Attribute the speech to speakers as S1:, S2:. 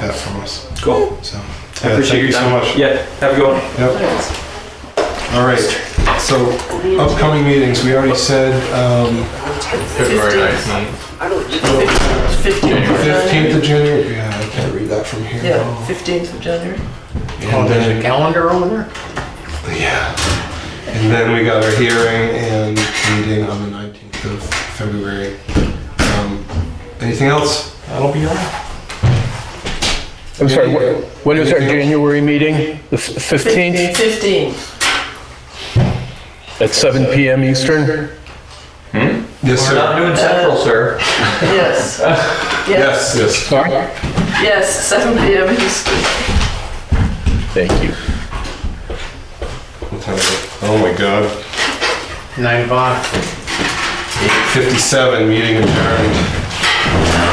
S1: that from us.
S2: Cool.
S1: So,
S2: I
S1: yeah,
S2: appreciate
S1: thank
S2: your
S1: you so
S2: time.
S1: much.
S2: Yeah, have a good one.
S1: All right. So upcoming meetings, we already said um,
S3: February nineteenth.
S4: I don't, it's fifteenth of January.
S1: 15th of January. Yeah, I can't read that from here.
S4: Yeah, fifteenth of January.
S1: And
S2: Oh,
S1: then,
S3: calendar over there?
S1: yeah. And then we got our hearing and meeting on the 19th of February. Um, anything else?
S3: That'll be all right.
S5: I'm sorry, wh- when is our
S1: Anything else?
S5: January meeting? The f- 15th
S4: Fifteen.
S5: at 7 PM Eastern?
S1: Yes,
S2: We're not
S1: sir.
S2: doing central, sir.
S4: yes.
S1: Yes, yes.
S5: Sorry?
S4: Yes, seven PM Eastern.
S5: Thank you.
S1: What time is it? Oh my God.
S3: Nine o'clock.
S1: 57, meeting adjourned.